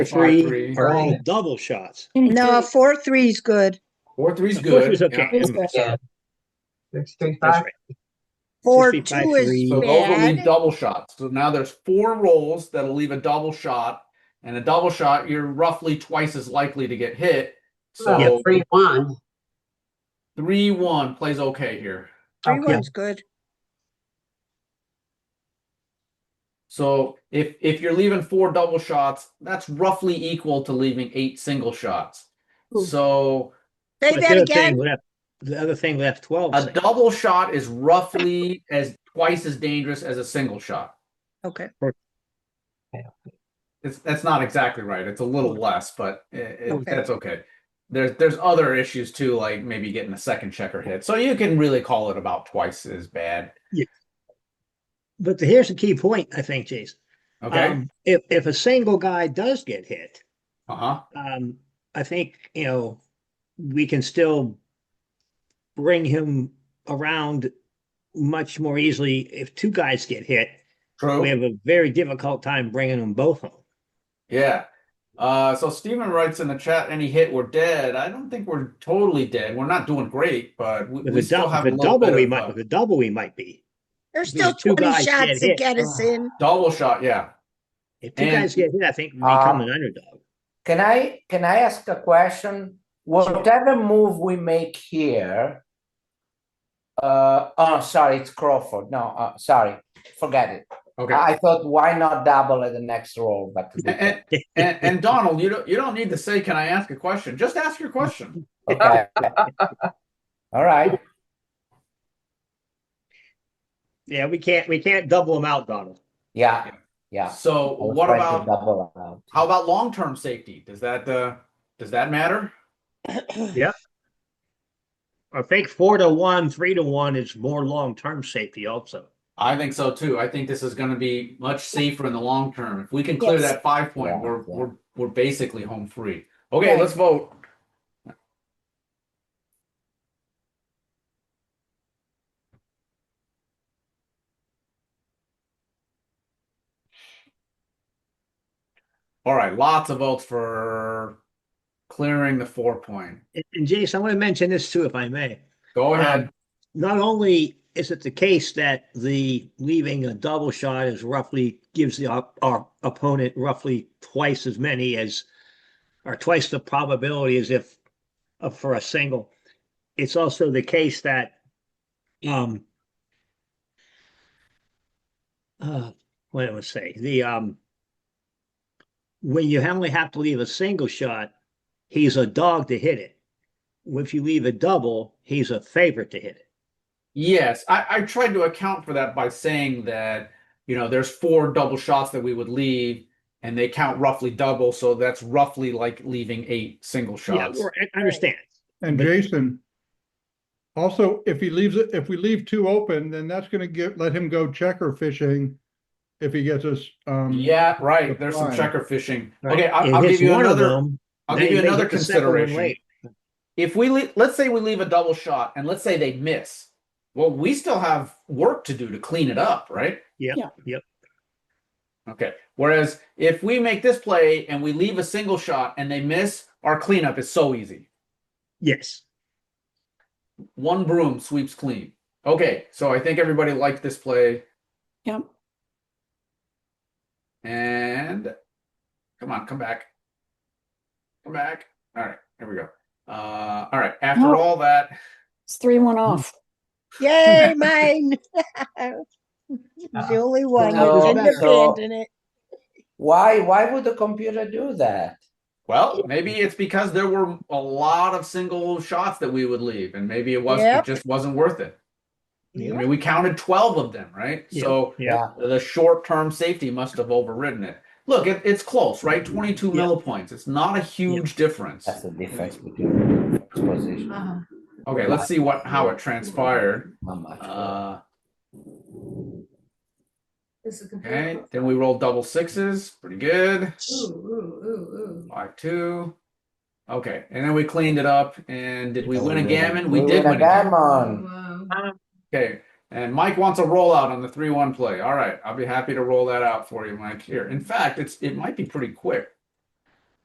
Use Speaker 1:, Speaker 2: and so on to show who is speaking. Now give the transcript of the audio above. Speaker 1: three.
Speaker 2: They're all
Speaker 3: Three.
Speaker 2: double shots.
Speaker 4: No, a four, three is good.
Speaker 1: Four three's
Speaker 2: Of course
Speaker 1: good.
Speaker 2: it's okay.
Speaker 1: yeah.
Speaker 4: Is good.
Speaker 3: Six, three,
Speaker 2: That's
Speaker 3: five.
Speaker 2: right.
Speaker 4: Four,
Speaker 2: Six, three,
Speaker 4: two
Speaker 2: five,
Speaker 4: is
Speaker 2: three.
Speaker 1: So those will leave
Speaker 4: Bad.
Speaker 1: double shots. So now there's four rolls that'll leave a double shot. And a double shot, you're roughly twice as likely to get hit.
Speaker 3: Yeah,
Speaker 1: So
Speaker 3: Three, one.
Speaker 1: three one plays okay here.
Speaker 4: three
Speaker 3: Okay.
Speaker 4: one's good.
Speaker 1: So if if you're leaving four double shots, that's roughly equal to leaving eight single shots.
Speaker 4: Ooh.
Speaker 1: So
Speaker 4: Say
Speaker 2: But the
Speaker 4: that
Speaker 2: other thing
Speaker 4: again.
Speaker 2: left- The other thing left twelve.
Speaker 1: a double shot is roughly as twice as dangerous as a single shot.
Speaker 4: Okay.
Speaker 1: It's that's not exactly right. It's a little less, but i- i-
Speaker 4: Okay.
Speaker 1: that's okay. There's there's other issues too, like maybe getting a second checker hit. So you can really call it about twice as bad.
Speaker 2: But here's the key point, I think, Jason.
Speaker 1: Okay.
Speaker 2: Um, If, if a single guy does get hit,
Speaker 1: uh huh.
Speaker 2: um, I think, you know, we can still bring him around much more easily. If two guys get hit,
Speaker 1: True.
Speaker 2: we have a very difficult time bringing them both home.
Speaker 1: Yeah. Uh, so Steven writes in the chat, any hit, we're dead. I don't think we're totally dead. We're not doing great, but we,
Speaker 2: With
Speaker 1: we
Speaker 2: a
Speaker 1: still
Speaker 2: double,
Speaker 1: have
Speaker 2: with
Speaker 1: a
Speaker 2: a
Speaker 1: little
Speaker 2: double,
Speaker 1: bit
Speaker 2: we
Speaker 1: of
Speaker 2: might,
Speaker 1: uh,
Speaker 2: with a double, we might be.
Speaker 4: There's
Speaker 2: These
Speaker 4: still
Speaker 2: two
Speaker 4: twenty
Speaker 2: guys get
Speaker 4: shots to
Speaker 2: hit. Oh.
Speaker 4: get us in.
Speaker 1: double shot. Yeah.
Speaker 2: If two
Speaker 1: And-
Speaker 2: guys get hit, I think we
Speaker 5: Uh,
Speaker 2: become an underdog.
Speaker 5: Can I can I ask a question? Whatever move we make here, uh, oh, sorry, it's Crawford. No, uh, sorry, forget it.
Speaker 1: Okay.
Speaker 5: I I thought why not double at the next roll, but
Speaker 1: And, and, and, and Donald, you don't you don't need to say, can I ask a question? Just ask your question.
Speaker 5: okay. All right.
Speaker 2: Yeah, we can't, we can't double them out, Donald.
Speaker 5: Yeah. Yeah.
Speaker 1: So
Speaker 5: I was
Speaker 1: what
Speaker 5: trying to
Speaker 1: about
Speaker 5: double out.
Speaker 1: how about long-term safety? Does that uh does that matter?
Speaker 2: I think four to one, three to one is more long-term safety also.
Speaker 1: I think so too. I think this is going to be much safer in the long term. If we can clear
Speaker 4: Yes.
Speaker 1: that five point,
Speaker 5: Yeah,
Speaker 1: we're
Speaker 5: yeah.
Speaker 1: we're we're basically home free. Okay,
Speaker 4: Right.
Speaker 1: let's vote. All right, lots of votes for clearing the four point.
Speaker 2: And- And Jason, I want to mention this too, if I may.
Speaker 1: Go
Speaker 2: Um,
Speaker 1: ahead.
Speaker 2: Not only is it the case that the leaving a double shot is roughly gives the op- our opponent roughly twice as many as or twice the probability as if uh, for a single. It's also the case that um uh what I would say, the um when you only have to leave a single shot, he's a dog to hit it. If you leave a double, he's a favorite to hit it.
Speaker 1: Yes, I, I tried to account for that by saying that, you know, there's four double shots that we would leave, and they count roughly double, so that's roughly like leaving eight single
Speaker 2: Yeah,
Speaker 1: shots.
Speaker 2: or- I- I understand.
Speaker 6: And
Speaker 2: But-
Speaker 6: Jason, also, if he leaves it, if we leave two open, then that's gonna give, let him go checker fishing if he gets us, um.
Speaker 1: Yeah, right. There's some
Speaker 6: Fine.
Speaker 1: checker fishing.
Speaker 2: right?
Speaker 1: Okay, I'll,
Speaker 2: If
Speaker 1: I'll
Speaker 2: it's
Speaker 1: give you
Speaker 2: one of
Speaker 1: another.
Speaker 2: them,
Speaker 1: I'll
Speaker 2: then
Speaker 1: give you
Speaker 2: they
Speaker 1: another
Speaker 2: get the second one
Speaker 1: consideration.
Speaker 2: later.
Speaker 1: If we le let's say we leave a double shot, and let's say they miss. Well, we still have work to do to clean it up, right?
Speaker 2: Yep,
Speaker 4: Yeah.
Speaker 2: yep.
Speaker 1: Okay. Whereas if we make this play and we leave a single shot and they miss, our cleanup is so easy.
Speaker 2: Yes.
Speaker 1: One broom sweeps clean. Okay, so I think everybody liked this play.
Speaker 4: Yep.
Speaker 1: And come on, come back. Come back. All right, here we go. Uh, all right, after
Speaker 2: Oh.
Speaker 7: No.
Speaker 1: all that,
Speaker 7: It's three one off.
Speaker 4: Yay, mine. The only one
Speaker 5: No,
Speaker 4: that didn't
Speaker 5: so-
Speaker 4: abandon it.
Speaker 5: Why why would the computer do that?
Speaker 1: well, maybe it's because there were a lot of single shots that we would leave, and maybe it was
Speaker 4: Yep.
Speaker 1: it just wasn't worth it. I mean, we counted 12 of them, right?
Speaker 2: Yeah.
Speaker 1: So
Speaker 2: Yeah.
Speaker 1: the short term safety must have overridden it. Look, it, it's close, right? 22
Speaker 2: Yeah.
Speaker 1: millipoints. It's not a huge difference.
Speaker 5: That's the difference between exposition.
Speaker 1: Okay, let's see what how it transpired.
Speaker 5: How much?
Speaker 1: Uh,
Speaker 8: This is
Speaker 1: okay, then we rolled double sixes. Pretty good. Five, two. Okay, and then we cleaned it up. And did we win a gammon? We did
Speaker 5: win a gammon.
Speaker 8: Wow.
Speaker 1: Okay, and Mike wants a rollout on the three one play. All right, I'll be happy to roll that out for you, Mike. Here, in fact, it's it might be pretty quick.